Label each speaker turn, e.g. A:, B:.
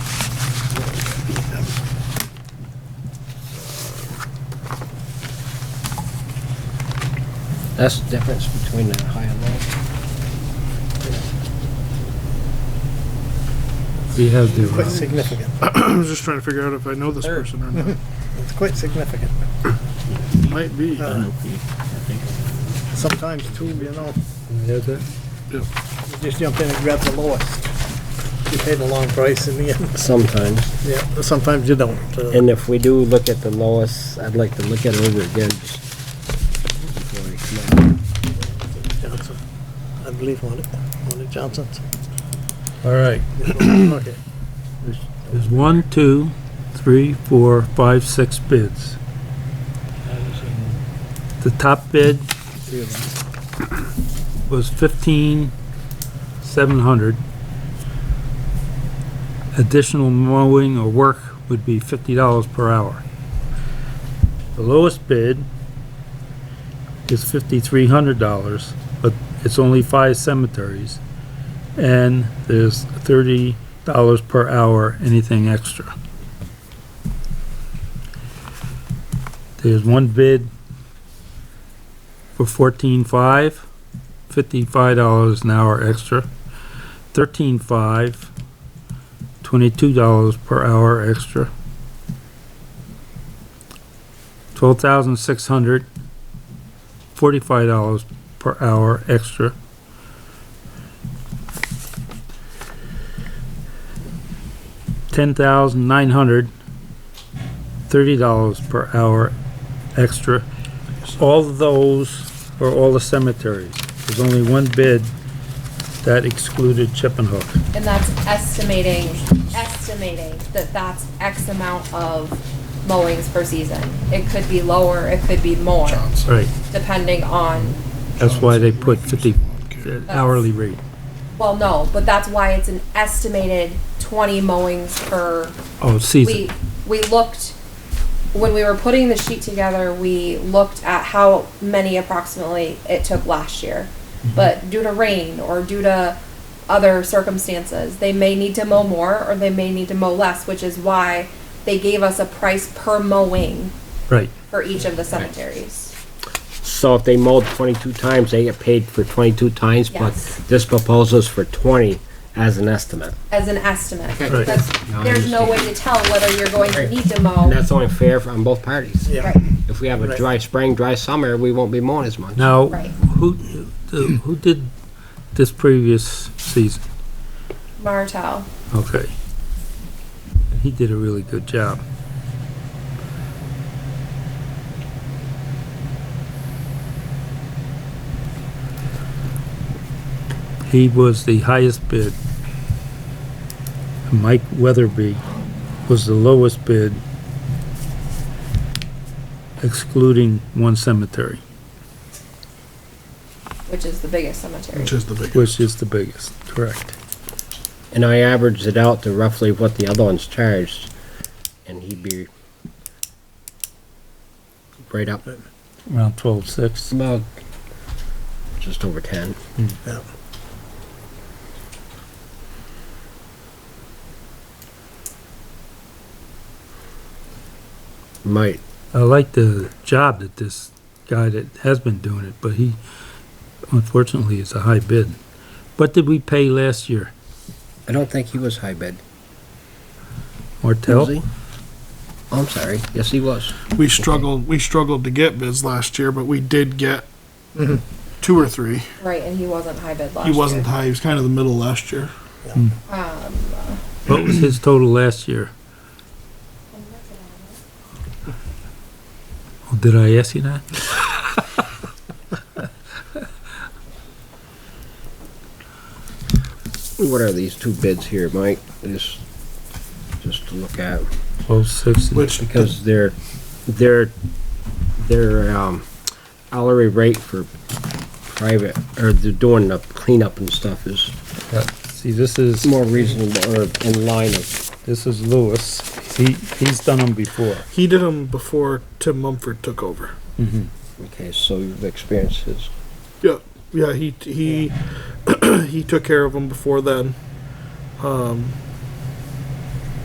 A: That's the difference between the high and low.
B: We have the.
C: Quite significant.
D: I was just trying to figure out if I know this
C: Sure.
D: person or not.
C: It's quite significant.
D: Might be.
C: Uh, Sometimes too, you know,
B: We have that?
C: you just jump in and grab the lowest. You pay the long price in the end.
A: Sometimes.
C: Yeah, but sometimes you don't. uh,
A: And if we do look at the lowest, I'd like to look at it over again. just before we come out.
C: Johnson, I believe on it, on it Johnson's.
B: All right.
C: Okay.
B: There's one, two, three, four, five, six bids. The top bid was fifteen, seven hundred. Additional mowing or work would be fifty dollars per hour. The lowest bid is fifty-three hundred dollars, but it's only five cemeteries. And there's thirty dollars per hour, anything extra. There's one bid for fourteen-five, fifty-five dollars an hour extra. Thirteen-five, twenty-two dollars per hour extra. Twelve thousand six hundred, forty-five dollars per hour extra. ten thousand nine hundred thirty dollars per hour extra. All those for all the cemeteries. There's only one bid that excluded Chippenhook.
E: And that's estimating, estimating that that's X amount of mowings per season. It could be lower, it could be more,
B: Right.
E: depending on,
B: That's why they put fifty uh, hourly rate.
E: well, no, but that's why it's an estimated twenty mowings per
B: Oh,
E: we,
B: season.
E: we looked, when we were putting the sheet together, we looked at how many approximately it took last year.
A: Mm-hmm.
E: But due to rain or due to other circumstances, they may need to mow more or they may need to mow less, which is why they gave us a price per mowing
B: Right.
E: for each of the cemeteries.
A: So if they mowed twenty-two times, they get paid for twenty-two times, but
E: Yes.
A: this proposal's for twenty as an estimate.
E: As an estimate,
B: Right.
E: because
A: Now I
E: there's no way to tell whether you're going to need to mow.
A: And that's only fair for- on both parties.
C: Yeah.
E: Right,
A: If we have a
C: Right.
A: dry spring, dry summer, we won't be mowing as much.
B: Now,
E: Right.
B: who, who did this previous season?
E: Martel,
B: Okay. He did a really good job. He was the highest bid. Mike Weatherby was the lowest bid, excluding one cemetery,
E: which is the biggest cemetery.
D: Which is the big.
B: which is the biggest, correct?
A: And I averaged it out to roughly what the other ones charged, and he'd be right up
B: Around twelve-six.
A: about just over ten. Might
B: I like the job that this guy that has been doing it, but he unfortunately is a high bid. What did we pay last year?
A: I don't think he was high bid. Was
B: Martell?
A: he? Oh, I'm sorry. Yes, he was.
D: We struggled, we struggled to get bids last year, but we did get two or three.
E: Right, and he wasn't high bid last
D: He
E: year.
D: wasn't high, he was kind of the middle last year.
E: Um,
B: What was his total last year? Oh, Did I ask you that?
A: What are these two bids here, Mike? Just, just to look at
B: Twelve sixty.
D: Which,
A: because their, their, their um, hourly rate for private or they're doing the cleanup and stuff is
B: See, this is,
A: more reasonable or in line of.
B: this is Lewis. He, he's done them before.
D: he did them before Tim Mumford took over.
B: Mm-hmm.
A: Okay, so you've experienced his.
D: Yeah, yeah, he, he, he took care of them before then. Um,